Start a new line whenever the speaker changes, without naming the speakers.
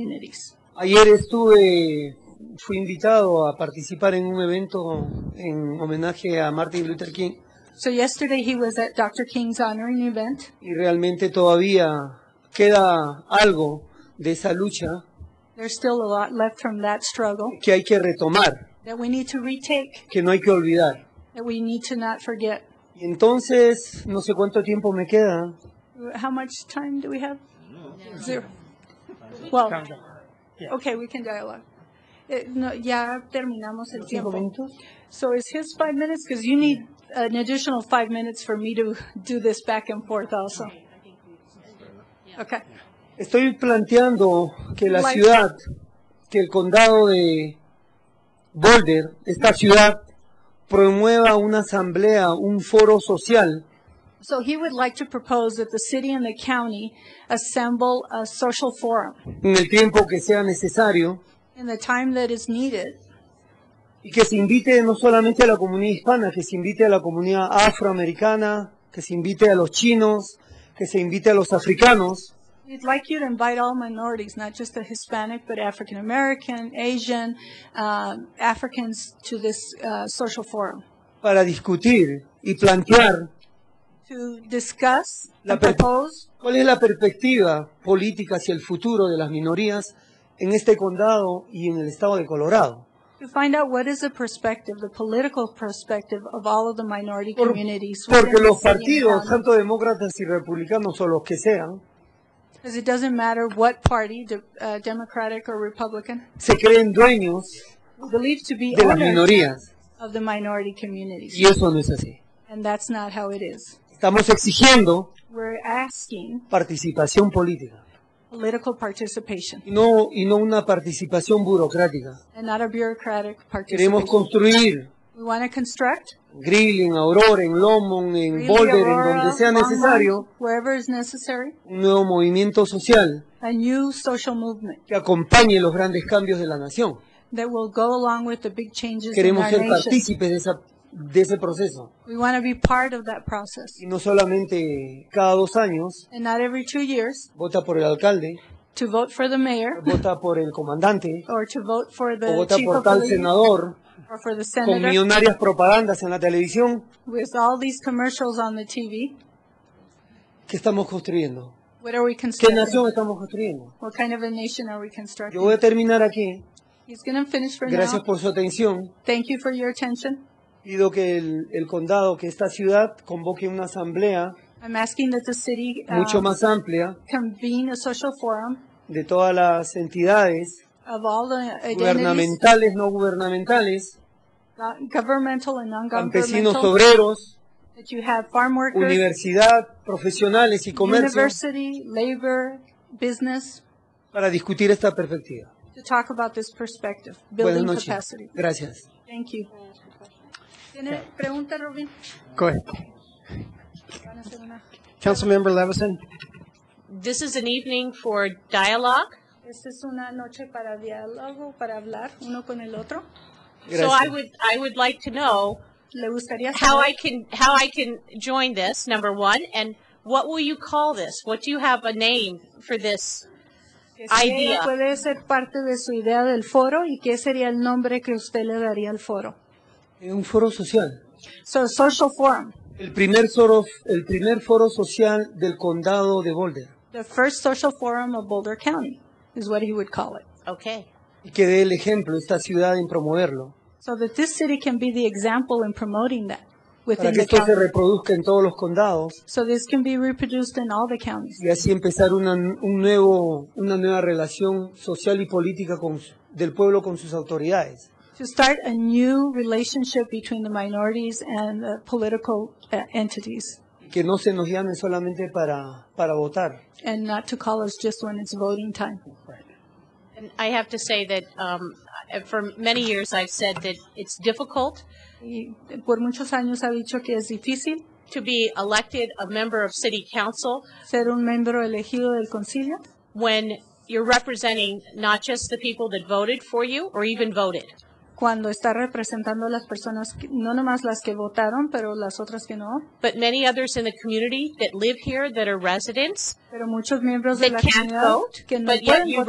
communities.
Ayer estuve, fui invitado a participar en un evento en homenaje a Martin Luther King
So yesterday he was at Dr. King's honoring event,
y realmente todavía queda algo de esa lucha
There's still a lot left from that struggle
que hay que retomar,
that we need to retake,
que no hay que olvidar.
that we need to not forget.
Y entonces, no sé cuánto tiempo me queda.
How much time do we have? Zero. Well, okay, we can dialogue. Eh, no, ya terminamos el tiempo.
¿Cinco minutos?
So is his five minutes? Because you need an additional five minutes for me to do this back and forth also. Okay.
Estoy planteando que la
Like-
ciudad, que el condado de Boulder, esta ciudad, promueva una asamblea, un foro social
So he would like to propose that the city and the county assemble a social forum
en el tiempo que sea necesario
in the time that is needed
y que se invite no solamente a la comunidad hispana, que se invite a la comunidad afroamericana, que se invite a los chinos, que se invite a los africanos,
We'd like you to invite all minorities, not just the Hispanic, but African American, Asian, um, Africans to this uh, social forum
para discutir y plantear
to discuss
La
and
per-
propose
cuál es la perspectiva política hacia el futuro de las minorías en este condado y en el estado de Colorado.
to find out what is the perspective, the political perspective of all of the minority
Por-
communities.
Porque
within the
los
city and
partidos,
county.
tanto demócratas y republicanos o los que sean,
Because it doesn't matter what party, de- uh, Democratic or Republican,
se creen dueños
believed to be
de las
owners
minorías.
of the minority communities.
Y eso no es así.
And that's not how it is.
Estamos exigiendo
We're asking
participación política
political participation.
y no, y no una participación burocrática.
and not a bureaucratic
Queremos
participation.
construir
We want to construct,
en Greeley, en Aurora, en Longmont, en
really,
Boulder, en
Aurora,
donde sea
Longmont,
necesario,
wherever is necessary,
un nuevo movimiento social
a new social movement
que acompañe los grandes cambios de la nación.
that will go along with the big changes in
Queremos
our
ser
nation.
partícipes de, esa- de ese proceso.
We want to be part of that process.
Y no solamente cada dos años,
And not every two years
vota por el alcalde,
to vote for the mayor
vota por el comandante,
or to vote for
o
the
vota
chief
por
of
tal
police
senador,
or for the
con
senator
millonarias propagandas en la televisión
with all these commercials on the TV.
que estamos construyendo.
What are we
¿Qué
constructing?
nación estamos construyendo?
What kind of a nation are we
Yo voy
constructing?
a terminar aquí.
He's going to finish for
Gracias
now.
por su atención.
Thank you for your attention.
Pido que el, el condado, que esta ciudad, convoque una asamblea
I'm asking that the city uh,
mucho más amplia
convene a social forum
de todas las entidades
of all the identities,
gubernamentales, no gubernamentales,
not governmental and
campesinos,
non-governmental,
obreros,
that you have farm workers,
universidad, profesionales y comercio,
university, labor, business,
para discutir esta perspectiva.
to talk about this perspective,
Buenas
building
noches.
capacity.
Gracias.
Thank you. ¿Tiene pregunta, Robin?
Go ahead.
Van a hacer una-
Councilmember Levison?
This is an evening for dialogue.
Esta es una noche para diálogo, para hablar uno con el otro.
So I
Gracias.
would I would like to know
¿Le gustaría
how I
saber
can how I can join this number one and what will you call this? What do you have a name for this?
que si ella
idea.
puede ser parte de su idea del foro y qué sería el nombre que usted le daría al foro?
Eh, Un foro social.
So, social forum.
El primer, foro, el primer foro social del condado de Boulder.
The first social forum of Boulder County is what he would call it.
Okay.
Y que dé el ejemplo esta ciudad en promoverlo.
So that this city can be the example in promoting that
Para
within
que
the
esto se
county.
reproduzca en todos los condados
So this can be reproduced in all the counties.
y así empezar una, un nuevo, una nueva relación social y política con, su- del pueblo con sus autoridades.
To start a new relationship between the minorities and the political uh, entities
Y que no se nos llame solamente para, para votar.
and not to call us just when it's voting time.
And I have to say that um, for many years I've said that it's difficult
Y por muchos años ha dicho que es difícil
to be elected a member of city council
ser un miembro elegido del concilio
when you're representing not just the people that voted for you or even voted.
cuando está representando a las personas, que- no nomás las que votaron, pero las otras que no,
But many others in the community that live here that are residents
pero muchos miembros de
that
la
can't
comunidad
vote,
que Pues no
but yet
pueden
you